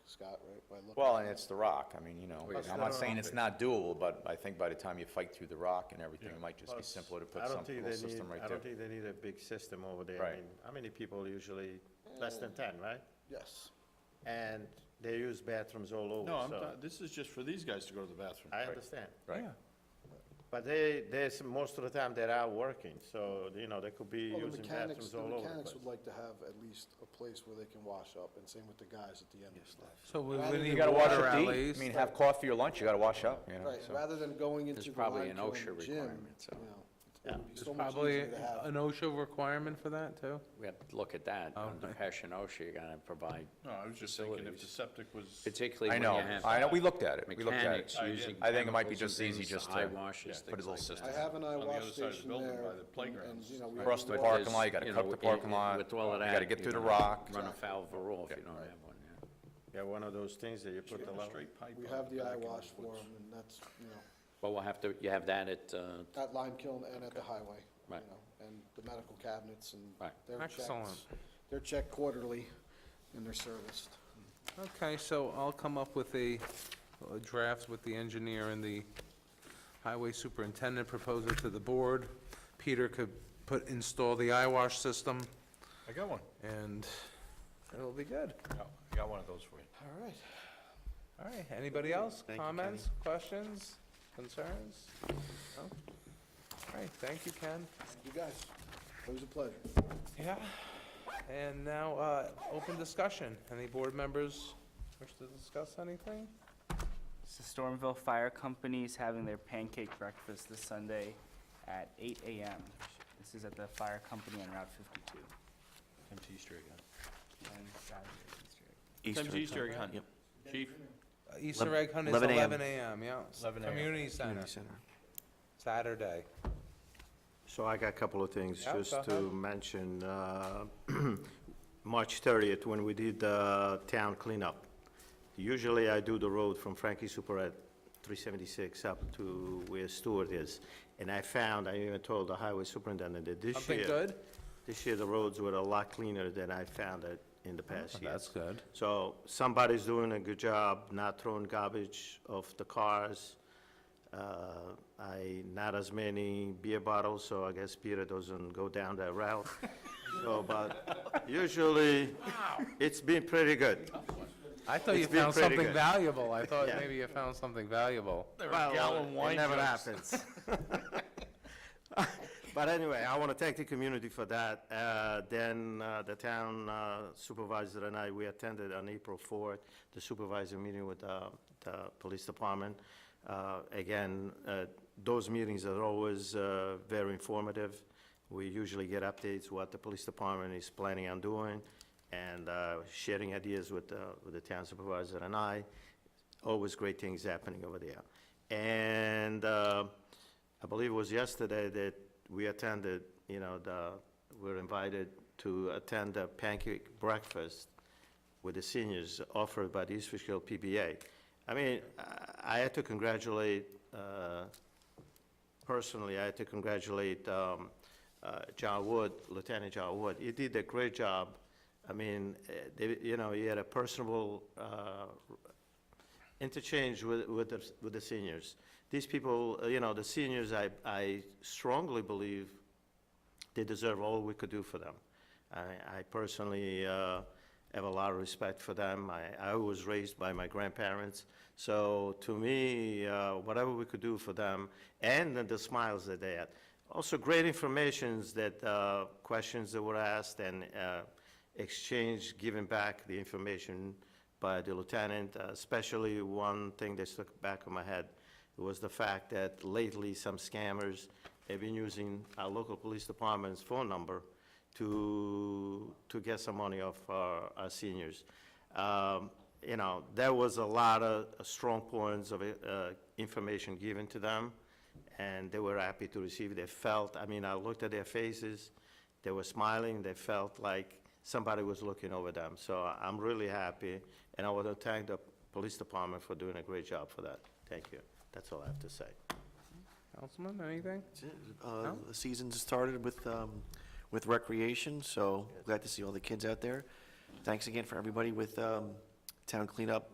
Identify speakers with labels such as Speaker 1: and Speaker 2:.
Speaker 1: Scott, right? by looking
Speaker 2: Well,
Speaker 1: at
Speaker 2: and
Speaker 1: it?
Speaker 2: it's the rock, I mean, you know,
Speaker 3: That's
Speaker 2: I'm
Speaker 3: not
Speaker 2: not saying
Speaker 3: on
Speaker 2: it's
Speaker 3: there.
Speaker 2: not doable, but I think by the time you fight through the rock and everything,
Speaker 4: Yeah.
Speaker 2: it might just be
Speaker 3: Plus,
Speaker 2: simpler to
Speaker 3: I
Speaker 2: put
Speaker 3: don't
Speaker 2: some
Speaker 3: think
Speaker 2: little
Speaker 3: they need-
Speaker 2: system right
Speaker 3: I
Speaker 2: there.
Speaker 3: don't think they need a big system over there. I
Speaker 2: Right.
Speaker 3: mean, how many people usually, less than ten, right?
Speaker 1: Yes.
Speaker 3: And they use bathrooms all over,
Speaker 4: No, I'm,
Speaker 3: so,
Speaker 4: not- this is just for these guys to go to the bathroom.
Speaker 3: I understand.
Speaker 2: Right.
Speaker 4: Yeah.
Speaker 3: But they, there's, most of the time they are working, so, you know, they could be
Speaker 1: Well, the
Speaker 3: using
Speaker 1: mechanics,
Speaker 3: bathrooms
Speaker 1: the
Speaker 3: all over the
Speaker 1: mechanics
Speaker 3: place.
Speaker 1: would like to have at least a place where they can wash up, and same with the guys at the end of the stuff.
Speaker 5: So we
Speaker 1: Rather
Speaker 5: we
Speaker 1: than-
Speaker 5: need
Speaker 2: You gotta wash
Speaker 5: water
Speaker 2: up to
Speaker 5: alleys.
Speaker 2: eat, I mean, have coffee or lunch, you gotta wash up, you know,
Speaker 1: Right,
Speaker 2: so.
Speaker 1: rather than going into the
Speaker 6: probably
Speaker 1: line
Speaker 6: an
Speaker 1: kill
Speaker 6: OSHA
Speaker 1: and gym,
Speaker 6: requirement, so-
Speaker 1: you know, it would be so
Speaker 5: There's
Speaker 1: much
Speaker 5: probably
Speaker 1: easier to have.
Speaker 5: an OSHA requirement for that, too?
Speaker 6: We have to look at that, under Passion OSHA, you're gonna provide,
Speaker 4: No, I was just thinking if the
Speaker 6: Facilities.
Speaker 4: septic was,
Speaker 6: particularly
Speaker 2: I
Speaker 6: when
Speaker 2: know,
Speaker 6: you have
Speaker 2: I know, we looked at it, we looked at it.
Speaker 6: mechanics using
Speaker 2: I think it might be
Speaker 6: chemicals
Speaker 2: just
Speaker 6: and
Speaker 2: easy
Speaker 6: things,
Speaker 2: just to
Speaker 6: eye washes,
Speaker 2: put a
Speaker 6: things
Speaker 2: little
Speaker 6: like that.
Speaker 2: system.
Speaker 1: I have an eye
Speaker 4: the other
Speaker 1: wash
Speaker 4: side of the
Speaker 1: station
Speaker 4: building
Speaker 1: there,
Speaker 4: by the
Speaker 1: and, and,
Speaker 4: playgrounds.
Speaker 1: you know, we.
Speaker 2: Across the
Speaker 1: we-
Speaker 6: But
Speaker 2: parking
Speaker 6: there's,
Speaker 2: lot, you gotta
Speaker 6: you
Speaker 2: cut
Speaker 6: know,
Speaker 2: the
Speaker 6: i-
Speaker 2: parking
Speaker 6: i-
Speaker 2: lot,
Speaker 6: With all of
Speaker 2: you
Speaker 6: that.
Speaker 2: gotta get
Speaker 6: you
Speaker 2: through the
Speaker 6: know,
Speaker 2: rock.
Speaker 6: Run afoul of a rule if you don't have one, yeah.
Speaker 3: Yeah, one of those things that you put the
Speaker 4: a
Speaker 3: level.
Speaker 4: straight pipe.
Speaker 1: We
Speaker 4: on
Speaker 1: have the
Speaker 4: back
Speaker 1: eye
Speaker 4: and
Speaker 1: wash
Speaker 4: it
Speaker 1: for
Speaker 4: puts-
Speaker 1: them, and that's, you know,
Speaker 6: Well, we'll have to, you have that at, uh,
Speaker 1: at Lime Kiln and at the highway, you
Speaker 6: Right.
Speaker 1: know, and the medical cabinets and
Speaker 6: Right.
Speaker 1: their checks.
Speaker 5: Excellent.
Speaker 1: They're checked quarterly and they're serviced.
Speaker 5: Okay, so I'll come up with a a draft with the engineer and the highway superintendent proposal to the board. Peter could put, install the eye wash system,
Speaker 4: I got one.
Speaker 5: and it'll be good.
Speaker 4: I got one of those for you.
Speaker 1: All right.
Speaker 5: All right, anybody else?
Speaker 3: Thank you,
Speaker 5: Comments, questions, concerns? No? All right, thank you, Ken.
Speaker 1: You guys, it was a pleasure.
Speaker 5: Yeah. And now, uh, open discussion. Any board members wish to discuss anything?
Speaker 7: So Stormville Fire Company's having their pancake breakfast this Sunday at eight AM. This is at the fire company on Route fifty-two. And Saturday, Easter egg.
Speaker 4: Easter Easter egg hunt. Chief?
Speaker 5: Uh, Easter egg hunt is
Speaker 7: 11 a.m.
Speaker 5: eleven AM, yeah.
Speaker 4: 11 a.m.
Speaker 5: Community center, Saturday.
Speaker 8: So I got a couple of things
Speaker 5: Yeah, go
Speaker 8: just to
Speaker 5: ahead.
Speaker 8: mention. uh, March 30th, when we did the town cleanup, usually I do the road from Frankie Super at 376 up to where Stewart is. And I found, I even told the highway superintendent that this
Speaker 5: Something
Speaker 8: year...
Speaker 5: good?
Speaker 8: This year, the roads were a lot cleaner than I found it in the past year.
Speaker 5: good.
Speaker 8: So somebody's doing a good job, not throwing garbage off the cars. Uh, I, not as many beer bottles, so I guess Peter doesn't go down that route. So, but usually, it's been pretty good.
Speaker 5: I thought you
Speaker 8: It's been
Speaker 5: found
Speaker 8: pretty
Speaker 5: something
Speaker 8: good.
Speaker 5: valuable. I thought
Speaker 8: Yeah.
Speaker 5: maybe you found something valuable.
Speaker 8: Well,
Speaker 4: gallon wine
Speaker 8: It never
Speaker 4: jugs.
Speaker 8: happens. But anyway, I want to thank the community for that. Uh, Then uh, the town uh, supervisor and I, we attended on April 4th, the supervisor meeting with uh, the police department. Uh, Again, uh, those meetings are always uh, very informative. We usually get updates what the police department is planning on doing and uh, sharing ideas with uh, with the town supervisor and I always great things happening over there. And uh, I believe it was yesterday that we attended, you know, the, we were invited to attend a pancake breakfast with the seniors offered by the East Fishkill PBA. I mean, I- I had to congratulate uh, personally, I had to congratulate um, uh, John Wood, Lieutenant John Wood. He did a great job. I mean, eh, they- you know, he had a personable uh, interchange with with the, with the seniors. These people, uh, you know, the seniors, I I strongly believe they deserve all we could do for them. I, I personally uh, have a lot of respect for them. I, I was raised by my grandparents. So to me, uh, whatever we could do for them and the smiles that they had. Also, great informations that, uh, questions that were asked and uh, exchanged, giving back the information by the lieutenant. Uh, Especially one thing that stuck back in my head was the fact that lately some scammers have been using our local police department's phone number to, to get some money off our, our seniors. Um, You know, there was a lot of strong points of uh, information given to them, and they were happy to receive. They felt, I mean, I looked at their faces, they were smiling, they felt like somebody was looking over them. So I- I'm really happy, and I want to thank the police department for doing a great job for that. Thank you. That's all I have to say.
Speaker 5: Councilman, anything?
Speaker 9: Uh, The season's started with, um, with recreation, so glad to see all the kids out there. Thanks again for everybody with um,
Speaker 8: town cleanup